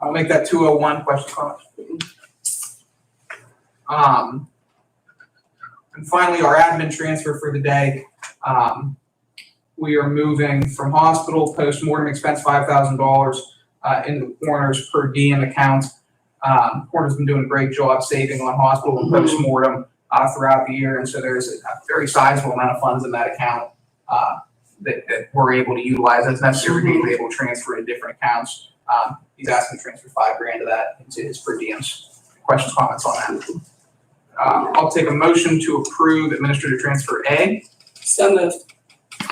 I'll make that two oh one question comment. Um, and finally, our admin transfer for the day, um, we are moving from hospital post-mortem expense five thousand dollars, uh, in the coroner's per diem account. Um, coroner's been doing a great job saving on hospital and post-mortem, uh, throughout the year, and so there's a very sizable amount of funds in that account, uh, that, that we're able to utilize, that's necessary to be able to transfer to different accounts. Um, he's asking to transfer five grand of that into his per diems. Questions, comments on that? Uh, I'll take a motion to approve administrative transfer A. So moved.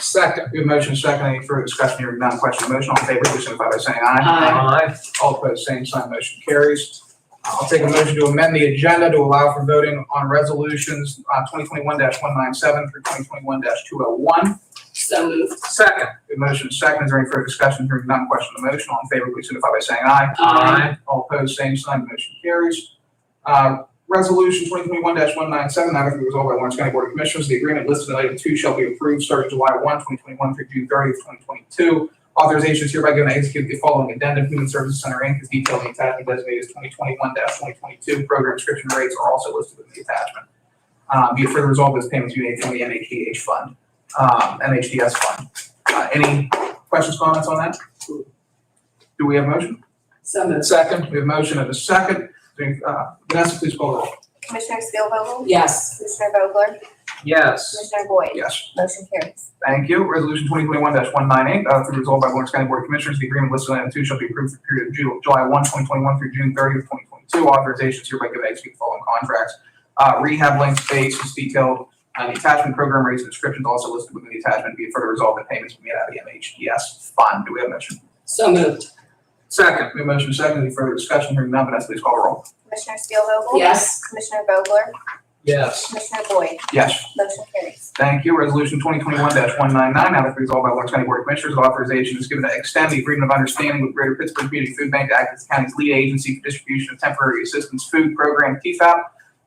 Second. We have motion second. Any further discussion? Hearing none. Question on motion. All in favor, please signify by saying aye. Aye. All opposed, same sign. Motion carries. Uh, I'll take a motion to amend the agenda to allow for voting on resolutions, uh, twenty twenty-one one nine seven through twenty twenty-one two oh one. So moved. Second. We have motion second. Is there any further discussion? Hearing none. Question on motion. All in favor, please signify by saying aye. Aye. All opposed, same sign, motion carries. Uh, Resolution 2021-197, now be resolved by Lawrence County Board of Commissioners, the agreement listed in item two shall be approved starting July 1, 2021 through June 30 of 2022. Authorization is hereby given to execute the following addendum, Human Services Center Inc. is detailed in the attachment designated as 2021-2022. Program description rates are also listed in the attachment. Uh, Be it further resolved, this payment is made from the NHDH fund, um, NHDS fund. Uh, Any questions, comments on that? Do we have a motion? So moved. Second, we have motion and a second. Uh, Vanessa, please call the roll. Commissioner Spielvogel? Yes. Commissioner Vogler? Yes. Commissioner Boyd? Yes. Motion carries. Thank you. Resolution twenty twenty-one one nine eight, uh, through resolved by Lawrence County Board of Commissioners, the agreement listed in item two shall be approved for the period of Ju- July 1, 2021 through June 30 of twenty twenty-two. Authorizations hereby given to execute the following contracts. Uh, rehab length space is detailed, uh, the attachment program rates and descriptions also listed within the attachment. Be it further resolved that payments will be made out of the MHES fund. Do we have a motion? So moved. Second. We have motion and a second. Any further discussion? Hearing none, Vanessa, please call the roll. Commissioner Spielvogel? Yes. Commissioner Vogler? Yes. Commissioner Boyd? Yes. Motion carries. Thank you. Resolution twenty twenty-one one nine nine, now therefore resolved by Lawrence County Board of Commissioners, authorization is given to extend the agreement of understanding with Greater Pittsburgh Community Food Bank to act as the county's lead agency for distribution of temporary assistance food program TFAP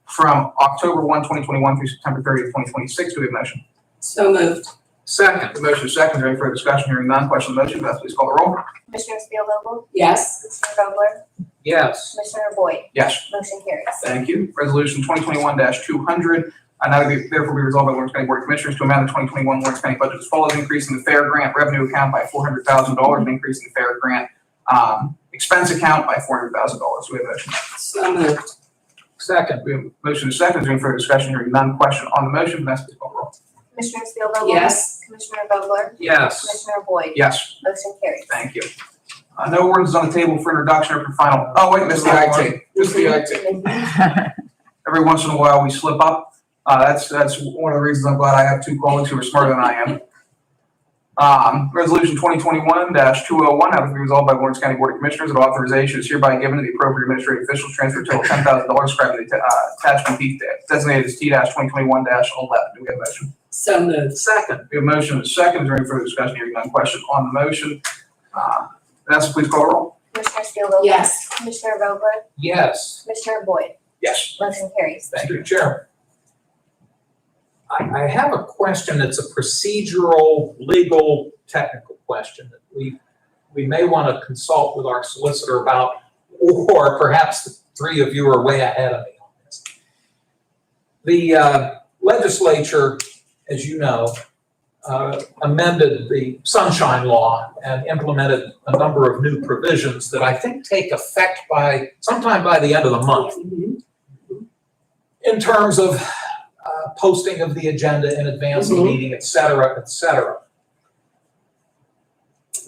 from October 1, 2021, through September 30, twenty twenty-six. Do we have a motion? So moved. Second. The motion is second. Is there any further discussion? Hearing none. Question on the motion. Vanessa, please call the roll. Commissioner Spielvogel? Yes. Commissioner Vogler? Yes. Commissioner Boyd? Yes. Motion carries. Thank you. Resolution twenty twenty-one two hundred, uh, now be- therefore be resolved by Lawrence County Board of Commissioners to amend the twenty twenty-one Lawrence County budget as follows, increase in the fair grant revenue account by four hundred thousand dollars, and increase in the fair grant, um, expense account by four hundred thousand dollars. We have a motion. So moved. Second. We have a motion and a second. Is there any further discussion? Hearing none. Question on the motion. Vanessa, please call the roll. Commissioner Spielvogel? Yes. Commissioner Vogler? Yes. Commissioner Boyd? Yes, Motion carries. thank you. Uh, no ordinance on the table for introduction or for final. Oh, wait, Mr. IT. Mr. IT. every once in a while we slip up. Uh, that's, that's one of the reasons I'm glad I have two colleagues who are smarter than I am. Um, resolution twenty twenty-one two oh one, having been resolved by Lawrence County Board of Commissioners, that authorization is hereby given to the appropriate administrative officials to transfer total ten thousand dollars described in the, uh, attachment D designated as T twenty twenty-one eleven. Do we have a motion? So moved. Second. We have a motion and a second. Is there any further discussion? Hearing none. Question on the motion. Uh, Vanessa, please call the roll. Commissioner Spielvogel? Yes. Commissioner Vogler? Yes. Commissioner Boyd? Yes. Motion carries. Thank you. Mr. Chair. I, I have a question that's a procedural, legal, technical question that we, we may want to consult with our solicitor about, or perhaps the three of you are way ahead of me on this. The uh, legislature, as you know, uh, amended the sunshine law and implemented a number of new provisions that I think take effect by, sometime by the end of the month Mhm. in terms of uh, posting of the agenda in advance of the Mhm. meeting, et cetera, et cetera.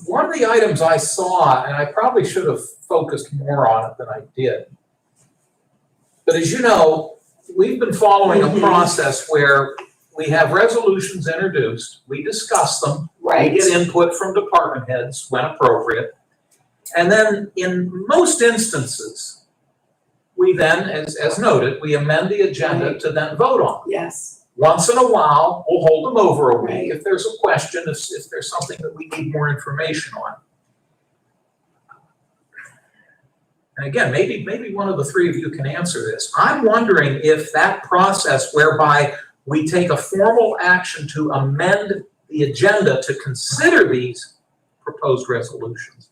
One of the items I saw, and I probably should have focused more on it than I did, but as you know, we've been following a Mhm. process where we have resolutions introduced, we discuss them, we Right. get input from department heads when appropriate. And then in most instances, we then, as, as noted, we amend the agenda to then vote on. Yes. Once in a while, we'll hold them over a week Right. if there's a question, if, if there's something that we need more information on. And again, maybe, maybe one of the three of you can answer this. I'm wondering if that process whereby we take a formal action to amend the agenda to consider these proposed resolutions